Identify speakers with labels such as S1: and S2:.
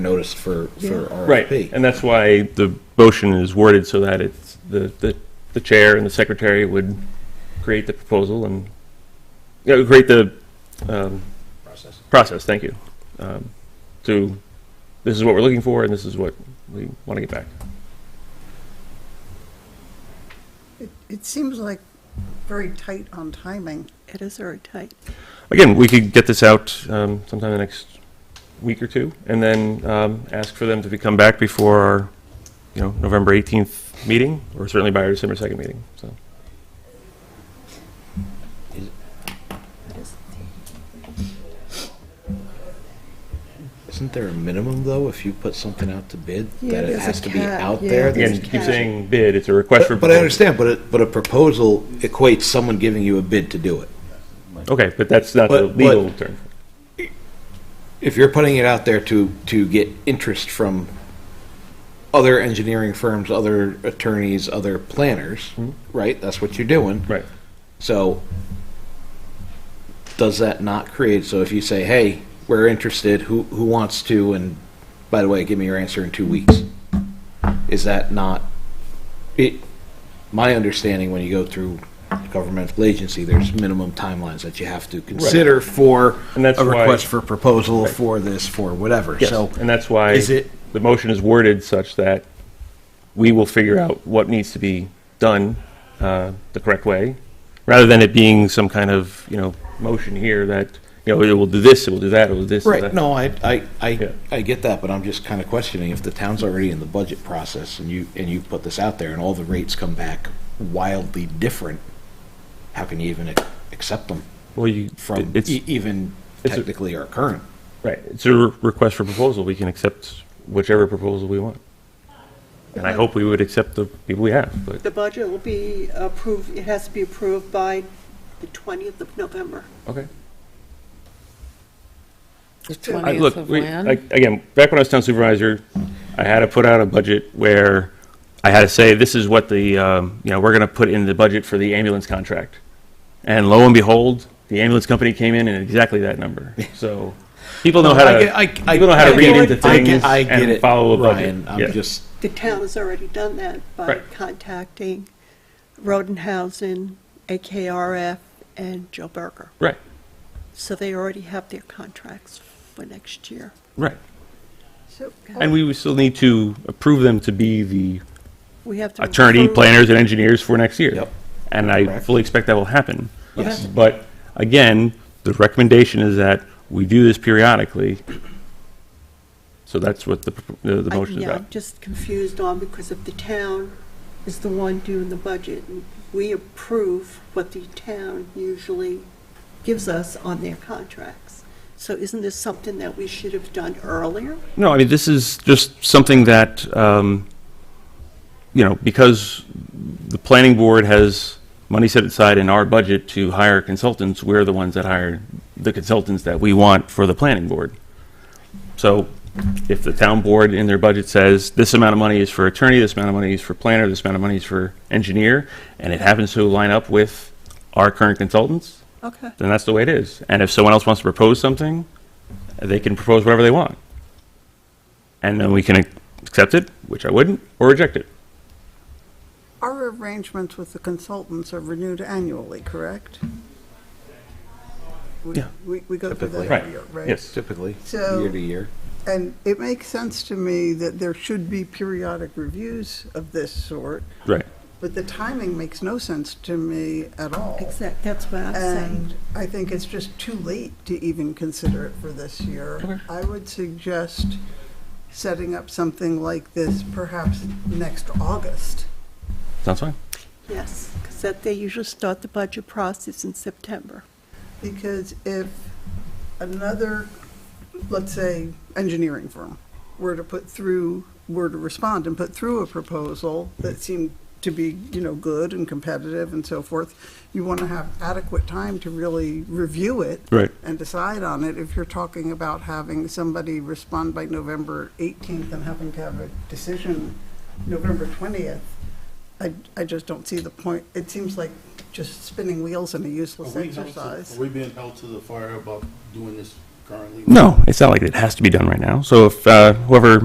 S1: notice for, for RFP.
S2: Right, and that's why the motion is worded so that it's, the, the, the chair and the secretary would create the proposal and, you know, create the, um,
S3: process.
S2: process, thank you. Um, to, this is what we're looking for and this is what we want to get back.
S4: It, it seems like very tight on timing.
S5: It is very tight.
S2: Again, we could get this out, um, sometime in the next week or two and then, um, ask for them to be- come back before our, you know, November eighteenth meeting or certainly by our December second meeting, so.
S1: Isn't there a minimum, though, if you put something out to bid?
S5: Yeah,
S1: That it
S5: there's a
S1: has to be
S5: cap,
S1: out
S5: yeah.
S1: there?
S5: There's
S2: Again,
S1: There's-
S5: a
S2: keep
S5: catch.
S2: saying bid, it's a request for.
S1: But but I
S2: proposal.
S1: understand, but, it- but a proposal equates someone giving you a bid to do it.
S2: Okay, but that's not the
S1: But- but-
S2: legal term.
S1: If you're putting it out there to, to get interest from other engineering firms, other attorneys, other planners,
S2: Mm-hmm.
S1: right? That's what you're doing.
S2: Right.
S1: So does that not create, so if you say, hey, we're interested, who, who wants to, and by the way, give me your answer in two weeks? Is that not, it, my understanding, when you go through a governmental agency, there's minimum timelines that you have to consider for
S2: And that's
S1: a
S2: why-
S1: request for proposal, for this, for whatever.
S2: Yes,
S1: So
S2: and that's why
S1: is it-
S2: the motion is worded such that we will figure out what needs to be done uh, the correct way, rather than it being some kind of, you know, motion here that, you know, it will do this, it will do that, it will do this. it will
S1: Right,
S2: that.
S1: no, I, I,
S2: Yeah.
S1: I, I get that, but I'm just kind of questioning if the town's already in the budget process and you, and you put this out there and all the rates come back wildly different, how can you even ac- accept them
S2: Well, you,
S1: from
S2: it's,
S1: e- even
S2: it's a-
S1: technically our current?
S2: right, it's a re- request for proposal. We can accept whichever proposal we want. And I hope we would accept the people we have, but,
S5: The budget will be approved, it has to be approved by the 20th of November.
S2: okay.
S6: The
S2: I-
S6: 20th
S2: Look,
S6: of
S2: we-
S6: when?
S2: ag- again, back when I was town supervisor, I had to put out a budget where I had to say, this is what the, um, you know, we're going to put in the budget for the ambulance contract. And lo and behold, the ambulance company came in at exactly that number. So people know how
S1: I get-
S2: to,
S1: I- I-
S2: people know how to
S1: I
S2: read
S1: get
S2: into
S1: it. I get-
S2: things
S1: I get
S2: and
S1: it,
S2: follow a budget.
S1: Ryan, I'm
S2: Yes.
S1: just,
S5: The town has already done that by
S2: Right.
S5: contacting Rodenhausen, AKRF, and Joe Berger.
S2: Right,
S5: So they already have their contracts for next year.
S2: right.
S5: So
S2: And we would still need to approve them to be the
S4: oh,
S5: we have to.
S2: attorney,
S5: approve-
S2: planners, and engineers for next year.
S1: Yep.
S2: And I
S1: Correct.
S2: fully expect that will happen.
S1: Yes. Okay.
S2: But again, the recommendation is that we do this periodically. So that's what the, pr- the the
S5: I-
S2: motion is
S5: Yeah, I'm
S2: about.
S5: just confused on because if the town is the one doing the budget, we approve what the town usually gives us on their contracts. So isn't this something that we should have done earlier?
S2: No, I mean, this is just something that, um, you know, because the planning board has money set aside in our budget to hire consultants, we're the ones that hire the consultants that we want for the planning board. So if the town board in their budget says, this amount of money is for attorney, this amount of money is for planner, this amount of money is for engineer, and it happens to line up with our current consultants,
S5: Okay.
S2: then that's the way it is. And if someone else wants to propose something, they can propose whatever they want. And then we can ac- accept it, which I wouldn't, or reject it.
S4: Our arrangements with the consultants are renewed annually, correct? We-
S2: Yeah.
S4: We, we go through that
S1: Typically.
S4: every year, right?
S2: Yes.
S1: typically,
S4: So-
S1: year to year.
S4: And it makes sense to me that there should be periodic reviews of this sort,
S2: Right.
S4: but the timing makes no sense to me at all.
S5: Exactly, that's what I'm saying.
S4: And I think it's just too late to even consider it for this year. I would suggest setting up something like this perhaps next August.
S2: Sounds fine.
S5: Yes, because that they usually start the budget process in September.
S4: Because if another, let's say, engineering firm were to put through, were to respond and put through a proposal that seemed to be, you know, good and competitive and so forth, you want to have adequate time to really review it.
S2: Right.
S4: And decide on it. If you're talking about having somebody respond by November 18th and having to have a decision November 20th, I, I just don't see the point. It seems like just spinning wheels in a
S3: Are
S4: useless
S3: we held to-
S4: exercise.
S3: Are we being held to the fire about doing this currently?
S2: No, it's not like it has to be done right now. So if uh, whoever